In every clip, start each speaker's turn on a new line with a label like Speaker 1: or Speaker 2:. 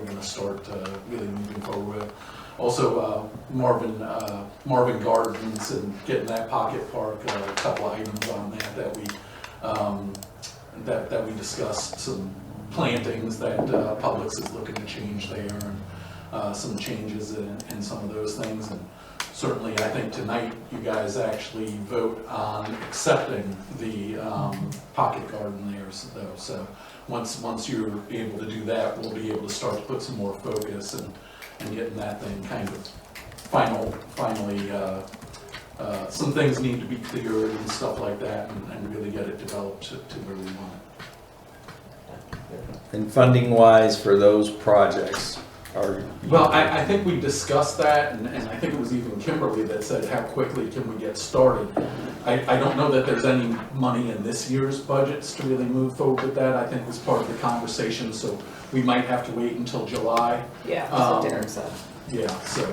Speaker 1: gonna start uh, really moving forward with. Also, uh, Marvin, uh, Marvin Gardens and getting that pocket park, uh, a couple items on that that we, um, that, that we discussed, some plantings that uh, Publix is looking to change there, and uh, some changes in, in some of those things. And certainly, I think tonight, you guys actually vote on accepting the um, pocket garden there, so- though. So once, once you're able to do that, we'll be able to start to put some more focus and, and getting that thing kind of final, finally, uh, uh, some things need to be cleared and stuff like that, and- and really get it developed to to where we want it.
Speaker 2: And funding wise for those projects are.
Speaker 1: Well, I, I think we discussed that, and, and I think it was even Kimberly that said, how quickly can we get started? I, I don't know that there's any money in this year's budgets to really move forward with that, I think was part of the conversation, so we might have to wait until July,
Speaker 3: Yeah, that's
Speaker 1: Um,
Speaker 3: what Derek said.
Speaker 1: yeah, so.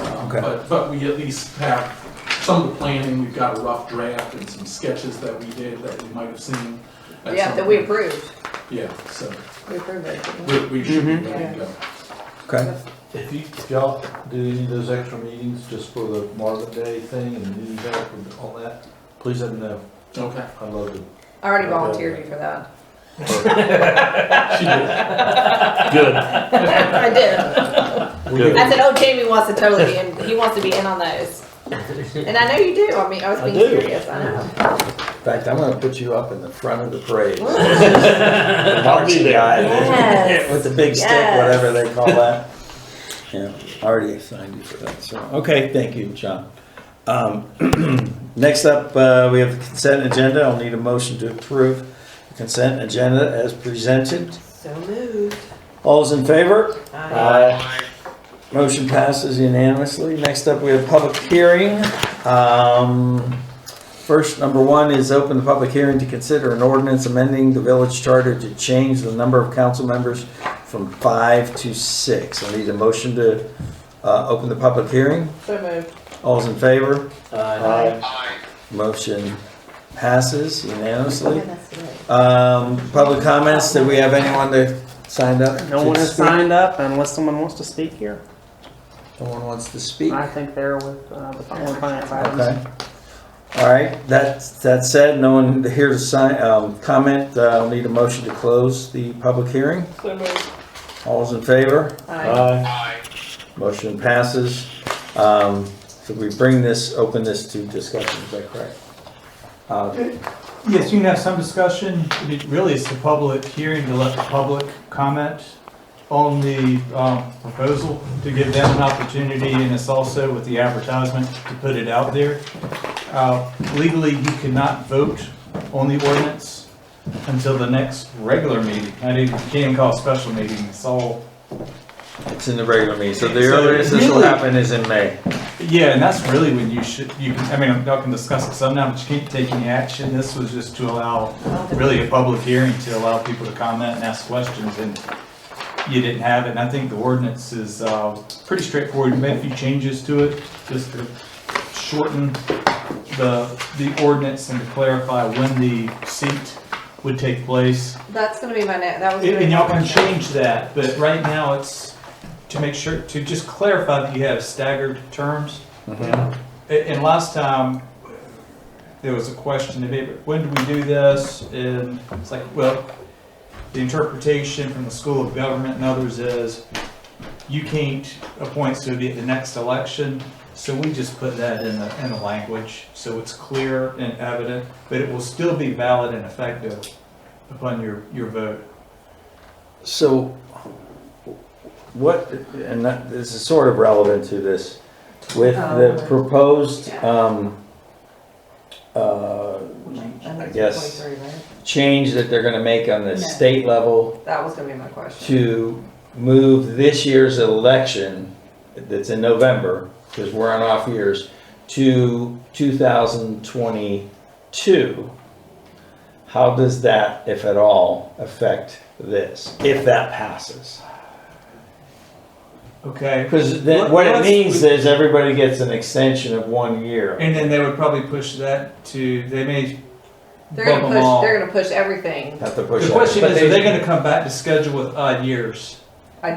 Speaker 1: um,
Speaker 2: Okay.
Speaker 1: But, but we at least have some of the planning, we've got a rough draft and some sketches that we did that we might have seen. at
Speaker 3: Yeah,
Speaker 1: some
Speaker 3: that we
Speaker 1: point.
Speaker 3: approved.
Speaker 1: Yeah, so,
Speaker 3: We approved it. didn't we?
Speaker 1: we, we should be ready to go.
Speaker 2: Okay,
Speaker 4: If you, if y'all do any of those extra meetings just for the Marvin Day thing and any help with- on that, please let me know.
Speaker 1: Okay.
Speaker 4: I'd love to.
Speaker 3: I already volunteered you for that.
Speaker 1: She did.
Speaker 4: Good.
Speaker 3: I did. I said, oh, Jamie wants to totally be in, he wants to be in on those. And I know you do, I mean, I was
Speaker 4: I
Speaker 3: being
Speaker 4: do.
Speaker 3: serious, I know.
Speaker 2: in fact, I'm gonna put you up in the front of the parade.
Speaker 3: Woo.
Speaker 2: The
Speaker 4: I'll be
Speaker 2: marching
Speaker 4: there.
Speaker 2: guy
Speaker 3: Yes.
Speaker 2: With the big stick,
Speaker 3: Yes.
Speaker 2: whatever they call that. Yeah, already assigned you for that, so, okay, thank you, John. Um, Next up, uh, we have the consent agenda. I'll need a motion to approve the consent agenda as presented.
Speaker 3: So moved.
Speaker 2: All's in favor?
Speaker 3: I-
Speaker 2: Aye. Motion passes unanimously. Next up, we have public hearing. Um, First, number one is open the public hearing to consider an ordinance amending the village charter to change the number of council members from five to six. I need a motion to uh, open the public hearing.
Speaker 3: So moved.
Speaker 2: All's in favor?
Speaker 4: Aye.
Speaker 2: Motion passes unanimously.
Speaker 3: Okay, that's right.
Speaker 2: Um, Public comments, did we have anyone that signed up?
Speaker 5: No
Speaker 2: to
Speaker 5: one has
Speaker 2: speak?
Speaker 5: signed up unless someone wants to speak here.
Speaker 2: No one wants to speak?
Speaker 5: I think they're with uh, the following finance items.
Speaker 2: Okay. All right, that, that said, no one here to sign, um, comment, uh, I'll need a motion to close the public hearing.
Speaker 3: So moved.
Speaker 2: All's in favor?
Speaker 3: Aye.
Speaker 4: Aye.
Speaker 2: Motion passes. Um, so we bring this, open this to discussion, is that correct? Uh,
Speaker 6: Yes, you can have some discussion. It really is a public hearing to let the public comment on the um, proposal, to give them an opportunity, and it's also with the advertisement to put it out there. Uh, Legally, you cannot vote on the ordinance until the next regular meeting. I didn't, can't call a special meeting, it's all,
Speaker 2: It's in the regular meeting, so the
Speaker 6: So
Speaker 2: earliest this will
Speaker 6: really-
Speaker 2: happen is in May.
Speaker 6: yeah, and that's really when you should, you can, I mean, y'all can discuss it some now, but you can't take any action. This was just to allow really a public hearing to allow people to comment and ask questions, and you didn't have it, and I think the ordinance is, uh, pretty straightforward, We made a few changes to it, just to shorten the, the ordinance and to clarify when the seat would take place.
Speaker 3: That's gonna be my next, that was.
Speaker 6: And
Speaker 3: gonna be
Speaker 6: and
Speaker 3: my
Speaker 6: y'all can
Speaker 3: next.
Speaker 6: change that, but right now it's to make sure, to just clarify that you have staggered terms. And, and last time, there was a question, maybe, when do we do this? And it's like, well, the interpretation from the School of Government and others is you can't appoint somebody at the next election. So we just put that in the, in the language, so it's clear and evident, but it will still be valid and effective upon your, your vote.
Speaker 2: So what, and that, this is sort of relevant to this, with the
Speaker 3: Um,
Speaker 2: proposed, um, uh,
Speaker 3: I
Speaker 2: guess.
Speaker 3: guess. That
Speaker 2: change that they're gonna make on the
Speaker 3: No.
Speaker 2: state level
Speaker 3: was gonna be my question.
Speaker 2: to move this year's election that's in November, because we're on off years, to two thousand twenty-two. How does that, if at all, affect this, if that passes?
Speaker 6: Okay.
Speaker 2: Because then what it means is everybody gets an extension of one year.
Speaker 6: And then they would probably push that to, they may
Speaker 3: They're gonna
Speaker 6: bump them all.
Speaker 3: push, they're gonna push everything.
Speaker 2: Have to push
Speaker 6: The
Speaker 2: that.
Speaker 6: question
Speaker 2: But
Speaker 6: is,
Speaker 2: they-
Speaker 6: are they gonna come back to schedule with odd years?